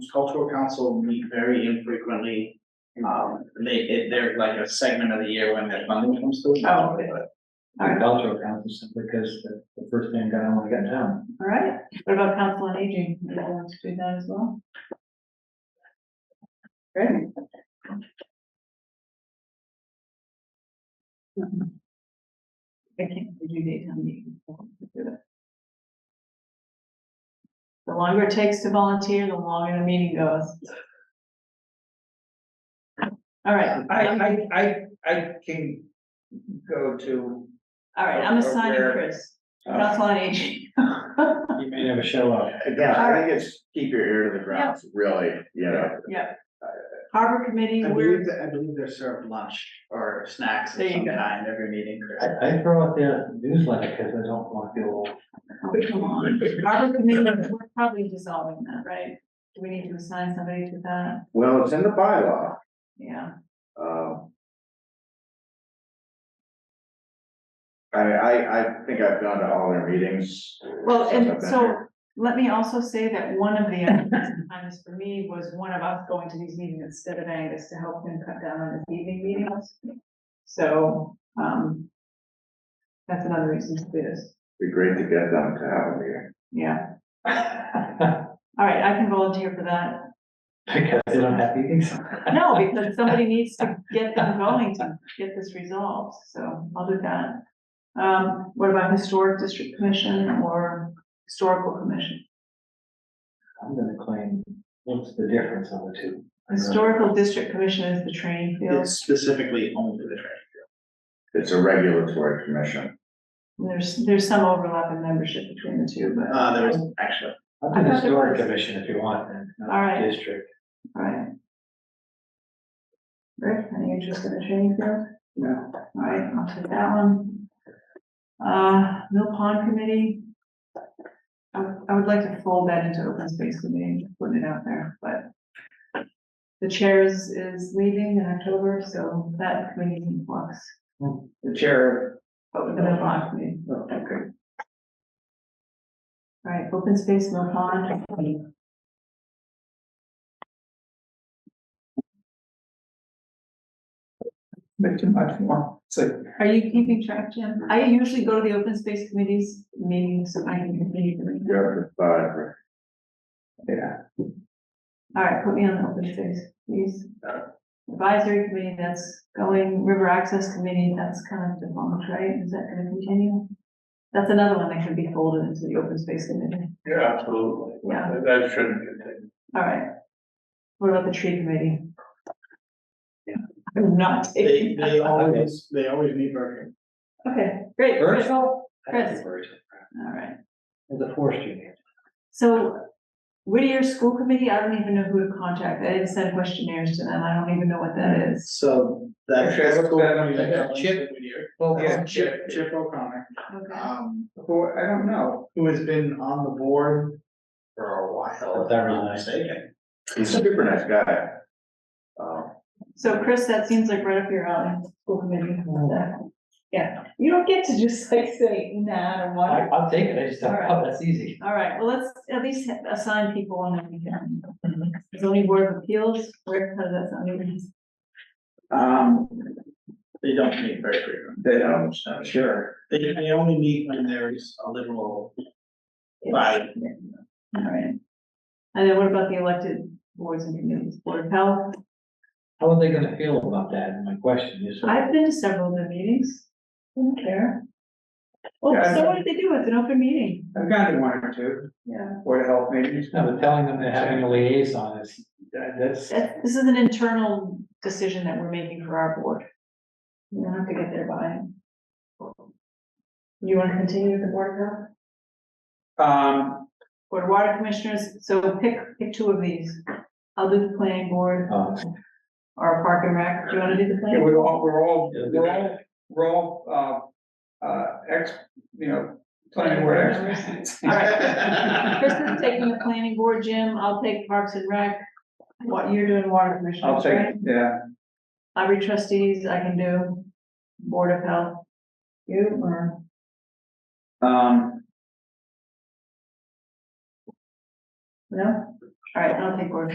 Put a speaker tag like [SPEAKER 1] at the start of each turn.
[SPEAKER 1] cultural council meet very infrequently. Um, they, it- they're like a segment of the year when their funding comes through.
[SPEAKER 2] Oh, okay.
[SPEAKER 3] The cultural council simply because the, the first thing that I want to get done.
[SPEAKER 2] All right, what about council on aging, would you want to do that as well? Great. I think we do need town meeting. before we do that. The longer it takes to volunteer, the longer the meeting goes. All right.
[SPEAKER 1] I, I, I, I can go to.
[SPEAKER 2] All right, I'm assigning
[SPEAKER 1] Where-
[SPEAKER 2] Chris,
[SPEAKER 1] uh,
[SPEAKER 2] council on aging.
[SPEAKER 3] You may never show up.
[SPEAKER 4] Again, I think it's keep your ear to the ground, really, you know.
[SPEAKER 2] Yeah. Harbor committee,
[SPEAKER 1] I
[SPEAKER 2] we're,
[SPEAKER 1] believe, that- I believe they're served lunch or snacks
[SPEAKER 2] There
[SPEAKER 1] of
[SPEAKER 2] you
[SPEAKER 1] some
[SPEAKER 2] go.
[SPEAKER 1] kind every meeting, Chris.
[SPEAKER 3] I, I throw out the newsletter because I don't want to feel old.
[SPEAKER 2] oh, come on, harbor committee, we're probably dissolving that, right? Do we need to assign somebody to that?
[SPEAKER 4] Well, it's in the bylaw,
[SPEAKER 2] Yeah,
[SPEAKER 4] um. I, I, I think I've gone to all their meetings.
[SPEAKER 2] well,
[SPEAKER 4] since I've
[SPEAKER 2] and
[SPEAKER 4] been
[SPEAKER 2] so,
[SPEAKER 4] here.
[SPEAKER 2] let me also say that one of the other times for me was one of us going to these meetings instead of Angus to help him cut down on his evening meetings. So, um, that's another reason to do this,
[SPEAKER 4] Be great to get them to have a meeting.
[SPEAKER 2] yeah. All right, I can volunteer for that.
[SPEAKER 3] Because they don't have meetings.
[SPEAKER 2] No, because somebody needs to get them going to get this resolved, so I'll do that. Um, what about historic district commission or historical commission?
[SPEAKER 3] I'm gonna claim, what's the difference on the two?
[SPEAKER 2] Historical district commission is the training field,
[SPEAKER 1] It's specifically only the training.
[SPEAKER 4] It's a regulatory commission.
[SPEAKER 2] there's, there's some overlap in membership between the two, but,
[SPEAKER 1] Uh, there is actually,
[SPEAKER 3] I'm
[SPEAKER 2] I
[SPEAKER 3] the
[SPEAKER 2] thought there
[SPEAKER 3] historic
[SPEAKER 2] was-
[SPEAKER 3] commission if you want, and not
[SPEAKER 2] All right.
[SPEAKER 3] district.
[SPEAKER 2] right. Rick, any interest in the training field? No. All right, I'll take that one. Uh, Mill Pond Committee. I, would- I would like to fold that into open space committee, just putting it out there, but. The chair is, is leaving in October, so that committee's in flux.
[SPEAKER 3] Hmm.
[SPEAKER 2] The chair. Of the Mill Pond Oh. Committee. Okay. All right, open space, Mill Pond.
[SPEAKER 5] Make too much more, it's like,
[SPEAKER 2] Are you keeping track, Jim? I usually go to the open space committees meetings, so I can continue doing
[SPEAKER 4] You
[SPEAKER 2] that.
[SPEAKER 4] have to five,
[SPEAKER 5] yeah,
[SPEAKER 2] All right, put me on the open space, please. Advisory committee, that's going, river access committee, that's kind of defunct, right? Is that gonna continue? That's another one that can be folded into the open space committee.
[SPEAKER 6] Yeah, absolutely.
[SPEAKER 2] Yeah.
[SPEAKER 6] That shouldn't continue.
[SPEAKER 2] All right. What about the tree committee? I'm not
[SPEAKER 1] they,
[SPEAKER 2] taking that.
[SPEAKER 1] they always, they always meet virtually.
[SPEAKER 2] Okay, great. good.
[SPEAKER 3] Virtual?
[SPEAKER 2] Chris. All right.
[SPEAKER 3] The forestry. name.
[SPEAKER 2] So Whittier School Committee, I don't even know who to contact. I didn't send questionnaires to them. I don't even know what that is.
[SPEAKER 1] So that.
[SPEAKER 5] Actually, I looked that up.
[SPEAKER 1] That's
[SPEAKER 3] Chip.
[SPEAKER 5] yeah,
[SPEAKER 1] Chip, Chip O'Connor,
[SPEAKER 2] Okay.
[SPEAKER 1] um,
[SPEAKER 5] who, I don't know,
[SPEAKER 1] who has been on the board for a while, if I'm not mistaken.
[SPEAKER 4] he's a super nice guy. Um,
[SPEAKER 2] So Chris, that seems like right up your alley, school committee. Yeah, you don't get to just like say, nah, I don't
[SPEAKER 3] I,
[SPEAKER 2] want
[SPEAKER 3] I'll take it, I just don't, oh, that's easy.
[SPEAKER 2] it. All right, well, let's at least assign people on that we can. Zoning Board of Appeals, where, how does that sound?
[SPEAKER 4] um,
[SPEAKER 1] They don't meet very frequently.
[SPEAKER 4] they don't, I'm sure.
[SPEAKER 1] They, they only meet when there is a literal Right.
[SPEAKER 2] All right. And then what about the elected boards and committees, Board of Health?
[SPEAKER 3] How are they gonna feel about that? My question is.
[SPEAKER 2] I've been to several of the meetings, I don't care. Well,
[SPEAKER 5] Yeah, I
[SPEAKER 2] so
[SPEAKER 5] know.
[SPEAKER 2] what did they do? It's an open meeting,
[SPEAKER 5] I've gone to one or two,
[SPEAKER 2] yeah.
[SPEAKER 5] Board of Health meetings,
[SPEAKER 3] No, but telling them they're having a liaison is, that- that's,
[SPEAKER 2] That- this is an internal decision that we're making for our board. You don't have to get there by. You wanna continue with the board of health?
[SPEAKER 5] um,
[SPEAKER 2] Board of water commissioners, so pick, pick two of these. I'll do the planning board
[SPEAKER 3] uh,
[SPEAKER 2] or park and rec, do you wanna do the
[SPEAKER 5] yeah,
[SPEAKER 2] planning?
[SPEAKER 5] we're all, we're all,
[SPEAKER 3] Yeah, we
[SPEAKER 5] we're all, we're all, uh, uh, ex, you know, planning board experts.
[SPEAKER 2] All right. Chris is taking the planning board, Jim, I'll take parks and rec. What, you're doing water commissioners,
[SPEAKER 5] I'll
[SPEAKER 2] right?
[SPEAKER 5] take, yeah,
[SPEAKER 2] Library trustees, I can do, board of health. You or?
[SPEAKER 5] um,
[SPEAKER 2] No? All right, I'll take board of